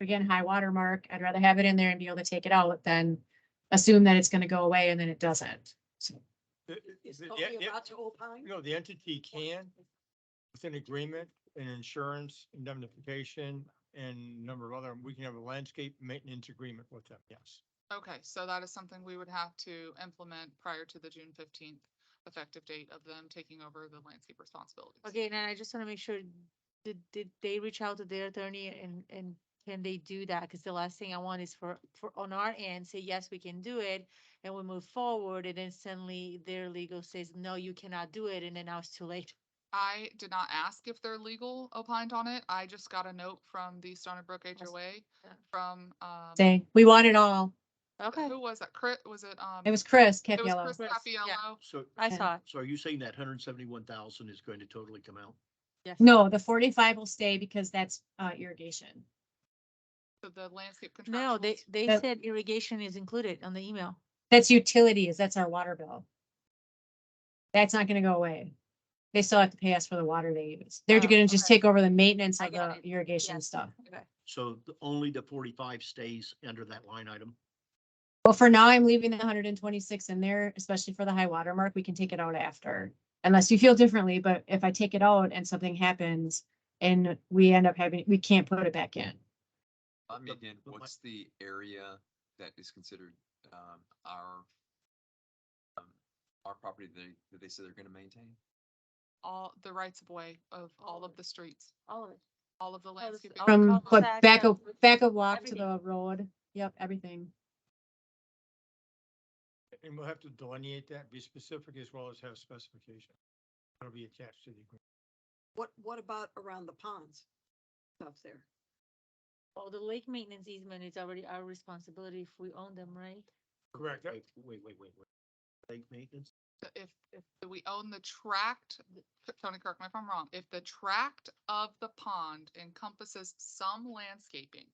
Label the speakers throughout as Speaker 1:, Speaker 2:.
Speaker 1: again, high water mark. I'd rather have it in there and be able to take it out than assume that it's gonna go away and then it doesn't.
Speaker 2: The-
Speaker 3: Is
Speaker 2: the-
Speaker 3: Tony
Speaker 2: the-
Speaker 3: about to opine?
Speaker 2: No, the entity can, with an agreement, an insurance indemnification, and a number of other, we can have a landscape maintenance agreement with them, yes.
Speaker 4: Okay, so that is something we would have to implement prior to the June fifteenth effective date of them taking over the landscape responsibilities.
Speaker 5: Okay, and I just wanna make sure, did, did they reach out to their attorney and, and can they do that? Cause the last thing I want is for, for, on our end, say, yes, we can do it. And we move forward and then suddenly their legal says, no, you cannot do it. And then now it's too late.
Speaker 4: I did not ask if their legal opined on it. I just got a note from the Stony Brook HOA
Speaker 5: yeah.
Speaker 4: from, um,
Speaker 1: Say, we want it all.
Speaker 5: Okay,
Speaker 4: who was that? Chris, was it, um?
Speaker 1: It was Chris
Speaker 4: it was
Speaker 1: Capiello.
Speaker 4: Chris
Speaker 5: Chris, yeah.
Speaker 4: Capiello.
Speaker 6: So,
Speaker 5: I
Speaker 1: Okay.
Speaker 5: saw it.
Speaker 6: so are you saying that hundred and seventy-one thousand is going to totally come out?
Speaker 5: Yes.
Speaker 1: No, the forty-five will stay because that's uh irrigation.
Speaker 4: So the landscape
Speaker 5: No, they,
Speaker 4: contractuals.
Speaker 5: they
Speaker 1: That-
Speaker 5: said irrigation is included on the email.
Speaker 1: That's utilities, that's our water bill. That's not gonna go away. They still have to pay us for the water they use. They're
Speaker 5: Oh,
Speaker 1: gonna just
Speaker 5: okay.
Speaker 1: take over the maintenance
Speaker 5: I
Speaker 1: of
Speaker 5: got
Speaker 1: the
Speaker 5: it.
Speaker 1: irrigation
Speaker 5: Yes.
Speaker 1: stuff.
Speaker 5: Okay.
Speaker 6: So the- only the forty-five stays under that line item?
Speaker 1: Well, for now, I'm leaving the hundred and twenty-six in there, especially for the high water mark. We can take it out after. Unless you feel differently, but if I take it out and something happens and we end up having, we can't put it back in.
Speaker 7: Let me
Speaker 6: But-
Speaker 7: again,
Speaker 6: but my-
Speaker 7: what's the area that is considered, um, our, um, our property that they, that they say they're gonna maintain?
Speaker 4: All the rights of way of all of the streets,
Speaker 5: All of it.
Speaker 4: all of the
Speaker 5: Oh, this
Speaker 4: landscape.
Speaker 5: is all
Speaker 1: From what
Speaker 5: cul-de-sac,
Speaker 1: back
Speaker 5: yeah.
Speaker 1: of, back of walk to
Speaker 5: Everything.
Speaker 1: the road. Yep, everything.
Speaker 2: And we'll have to delineate that, be specific as well as have specification. That'll be attached to the agreement.
Speaker 3: What, what about around the ponds? Stuff there.
Speaker 5: Well, the lake maintenance easement is already our responsibility if we own them, right?
Speaker 2: Correct.
Speaker 6: Wait, wait, wait, wait. wait. Lake maintenance?
Speaker 4: the- if, if we own the tract, t- Tony, correct me if I'm wrong, if the tract of the pond encompasses some landscaping,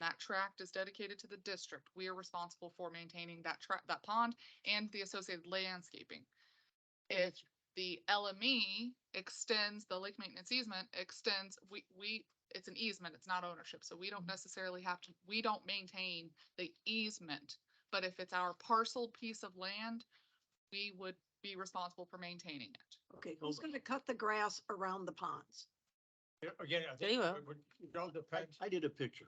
Speaker 4: that tract is dedicated to the district, we are responsible for maintaining that tract, that pond and the associated landscaping. If the LME extends, the lake maintenance easement extends, we, we, it's an easement, it's not ownership, so we don't necessarily have to, we don't maintain the easement. But if it's our parcel piece of land, we would be responsible for maintaining it.
Speaker 3: Okay, who's
Speaker 6: Hold on.
Speaker 3: gonna cut the grass around the ponds?
Speaker 2: Yeah, Again, I
Speaker 5: There
Speaker 2: think.
Speaker 5: you go.
Speaker 2: it would- It all
Speaker 6: I,
Speaker 2: depends.
Speaker 6: I did a picture.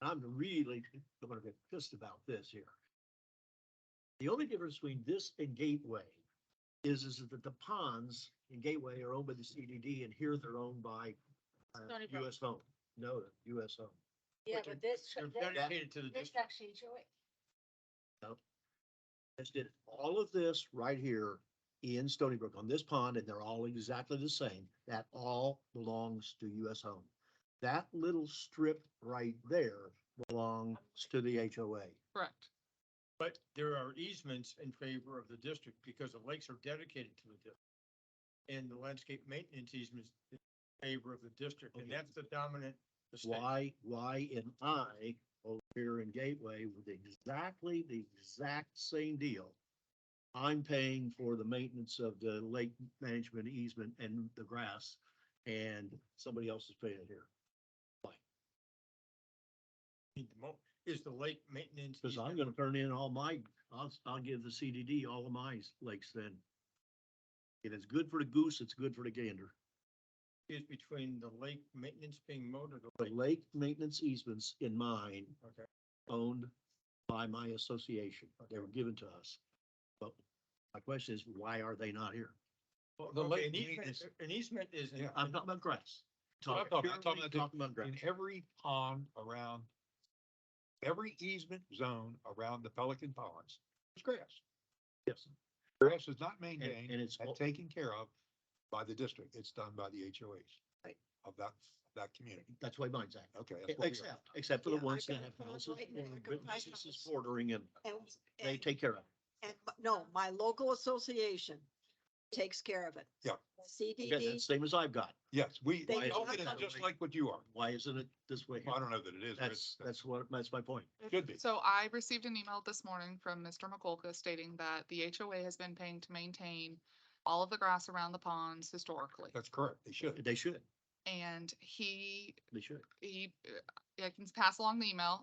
Speaker 6: and I'm really gonna get pissed about this here. The only difference between this and Gateway is, is that the ponds in Gateway are owned by the CDD and here they're owned by uh,
Speaker 5: Stony Brook.
Speaker 6: US Home. No, US Home.
Speaker 5: Yeah,
Speaker 2: Which are-
Speaker 5: this,
Speaker 2: They're dedicated to the district.
Speaker 5: actually joint.
Speaker 6: just did all of this right here in Stony Brook on this pond, and they're all exactly the same. That all belongs to US Home. That little strip right there belongs to the HOA.
Speaker 4: Correct.
Speaker 2: But there are easements in favor of the district because the lakes are dedicated to the district. And the landscape maintenance easements in favor of the district, and
Speaker 6: Okay.
Speaker 2: that's the dominant mistake.
Speaker 6: Why, why am I over here in Gateway with exactly the exact same deal? I'm paying for the maintenance of the lake management easement and the grass, and somebody else is paying it here.
Speaker 2: Need the mo- Is the lake maintenance.
Speaker 6: Cause I'm
Speaker 2: easement-
Speaker 6: gonna turn in all my, I'll, I'll give the CDD all of my s- lakes then. If it's good for the goose, it's good for the gander.
Speaker 2: Is between the lake maintenance being mowed or the
Speaker 6: The
Speaker 2: lake,
Speaker 6: lake maintenance easements in mine
Speaker 2: okay,
Speaker 6: owned by my association. They were given to us. But my question is, why are they not here?
Speaker 7: the
Speaker 2: okay,
Speaker 7: lake
Speaker 2: an easement,
Speaker 7: maintenance-
Speaker 2: an easement is. an-
Speaker 6: I'm talking about grass.
Speaker 7: Well, I'm talking- I'm
Speaker 6: purely
Speaker 7: talking about the-
Speaker 6: Talking about grass.
Speaker 7: In every pond around, every easement zone around the Pelican Ponds, there's grass.
Speaker 6: Yes.
Speaker 7: Grass is not
Speaker 6: And,
Speaker 7: maintained
Speaker 6: and it's,
Speaker 7: and
Speaker 6: all-
Speaker 7: taken care of by the district. It's done by the HOAs
Speaker 3: Right.
Speaker 7: of that, that community.
Speaker 6: that's why mine's at.
Speaker 7: Okay. that's what we are.
Speaker 6: Except, except for the
Speaker 3: Yeah, I
Speaker 6: ones that
Speaker 3: got a
Speaker 6: have
Speaker 3: pond
Speaker 6: houses,
Speaker 3: right
Speaker 6: or
Speaker 3: next to my
Speaker 6: businesses
Speaker 3: house.
Speaker 6: bordering and
Speaker 3: And,
Speaker 6: they
Speaker 3: and-
Speaker 6: take care of it.
Speaker 3: and, but no, my local association takes care of it.
Speaker 7: Yeah.
Speaker 6: Yeah, that's the
Speaker 3: CDD,
Speaker 6: same as I've got.
Speaker 7: Yes, we,
Speaker 3: They
Speaker 7: we
Speaker 3: do
Speaker 7: own
Speaker 3: not
Speaker 7: it
Speaker 3: have
Speaker 7: just
Speaker 6: a-
Speaker 7: like what you are.
Speaker 6: Why isn't it this way?
Speaker 7: Well, I don't know that it is, but
Speaker 6: That's,
Speaker 7: it's,
Speaker 6: that's what, that's my point.
Speaker 7: should be.
Speaker 4: So I received an email this morning from Mr. McColka stating that the HOA has been paying to maintain all of the grass around the ponds historically.
Speaker 7: That's correct. They should.
Speaker 6: They should,
Speaker 4: And he,
Speaker 6: they should.
Speaker 4: he, uh, I can pass along the email